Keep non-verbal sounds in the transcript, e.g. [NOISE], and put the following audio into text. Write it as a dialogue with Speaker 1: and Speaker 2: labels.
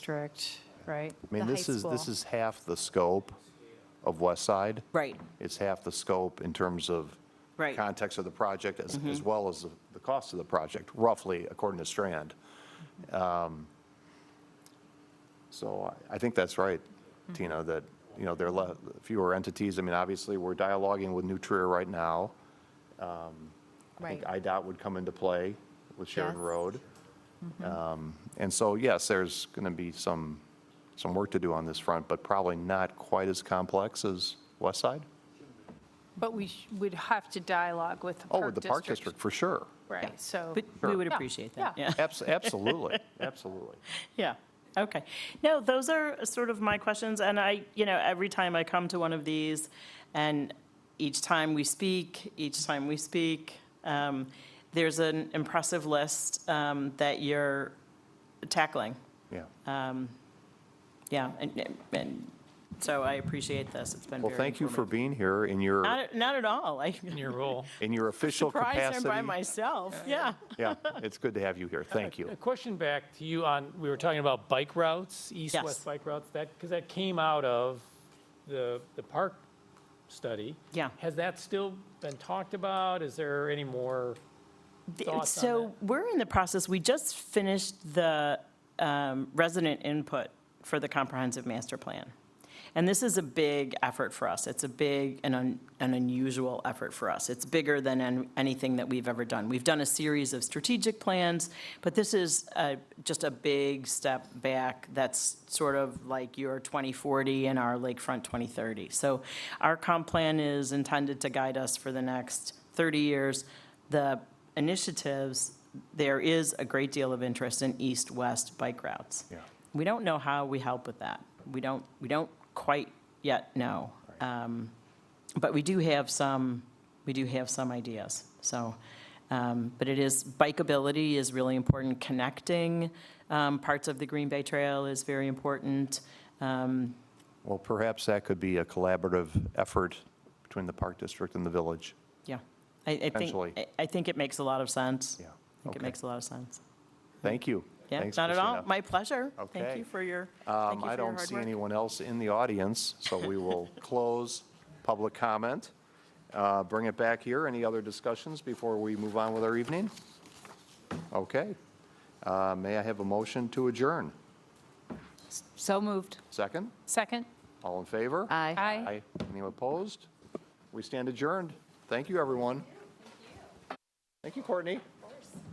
Speaker 1: district, right?
Speaker 2: I mean,
Speaker 3: the high
Speaker 2: this is, this
Speaker 3: school.
Speaker 2: is half the scope of West Side.
Speaker 3: Right,
Speaker 2: It's half the scope in terms of
Speaker 3: Right. Mm-hmm.
Speaker 2: context of the project as, as well as the- the cost of the project, roughly, according to Strand. Um, So I, I think that's right,
Speaker 3: Mm-hmm.
Speaker 2: Tina, that, you know, there are le- fewer entities. I mean, obviously, we're dialoguing with New Trier right now. I think
Speaker 3: right.
Speaker 2: IDOT would come into play with Sheridan
Speaker 3: Yes.
Speaker 2: Road.
Speaker 4: Mm-hmm.
Speaker 2: Um, And so, yes, there's going to be some, some work to do on this front, but probably not quite as complex as West Side.
Speaker 1: But we sh- would have to dialogue with the
Speaker 2: Oh,
Speaker 1: Park
Speaker 2: with the Park
Speaker 1: District.
Speaker 2: District, for sure.
Speaker 1: Right, so,
Speaker 4: But we would
Speaker 1: Yeah,
Speaker 4: appreciate that,
Speaker 1: yeah.
Speaker 4: yeah. [LAUGHS]
Speaker 2: Abs- Absolutely, absolutely.
Speaker 4: Yeah, okay. No, those are sort of my questions, and I, you know, every time I come to one of these, and each time we speak, each time we speak, um, there's an impressive list um, that you're tackling.
Speaker 2: Yeah.
Speaker 4: Yeah, and, and so I appreciate this, it's been very
Speaker 2: Well, thank you for
Speaker 4: informative.
Speaker 2: being here in your,
Speaker 4: Not, not at all, I
Speaker 5: in your role.
Speaker 2: in your official
Speaker 4: surprised I'm
Speaker 2: capacity.
Speaker 4: by myself, yeah.
Speaker 2: Yeah, it's good to have you here. Thank you.
Speaker 4: [LAUGHS]
Speaker 5: A question back to you on, we were talking about bike routes,
Speaker 4: Yes.
Speaker 5: east-west bike routes, that, because that came out of the, the park study.
Speaker 4: Yeah.
Speaker 5: Has that still been talked about? Is there any more?
Speaker 4: The-
Speaker 5: thoughts on
Speaker 4: So we're in the process, we just finished the um, resident input for the comprehensive master plan. And this is a big effort for us. It's a big and un- an unusual effort for us. It's bigger than an- anything that we've ever done. We've done a series of strategic plans, but this is uh, just a big step back that's sort of like your 2040 and our Lakefront 2030. So our comp plan is intended to guide us for the next 30 years the initiatives, there is a great deal of interest in east-west bike routes.
Speaker 2: Yeah.
Speaker 4: We don't know how we help with that. We don't, we don't quite yet know. Um, But we do have some, we do have some ideas, so. um, But it is, bikeability is really important. Connecting um, parts of the Green Bay Trail is very important. Um,
Speaker 2: Well, perhaps that could be a collaborative effort between the Park District and the village.
Speaker 4: Yeah, I, I think,
Speaker 2: Potentially.
Speaker 4: I- I think it makes a lot of sense.
Speaker 2: Yeah,
Speaker 4: I think it
Speaker 2: okay.
Speaker 4: makes a lot of sense.
Speaker 2: Thank you.
Speaker 4: Yeah,
Speaker 2: Thanks,
Speaker 4: not at all.
Speaker 2: Christina.
Speaker 4: My pleasure. Thank
Speaker 2: Okay.
Speaker 4: you for your, thank
Speaker 2: Um,
Speaker 4: you for
Speaker 2: I
Speaker 4: your
Speaker 2: don't
Speaker 4: hard
Speaker 2: see
Speaker 4: work.
Speaker 2: anyone else in the audience, so we will
Speaker 4: [LAUGHS]
Speaker 2: close public comment. Uh, Bring it back here. Any other discussions before we move on with our evening? Okay. Uh, May I have a motion to adjourn?
Speaker 3: So moved.
Speaker 2: Second?
Speaker 1: second?
Speaker 2: All in favor?
Speaker 3: Aye.
Speaker 1: Aye.
Speaker 2: Aye. Anyone opposed? We stand adjourned. Thank you, everyone. Thank you, Courtney.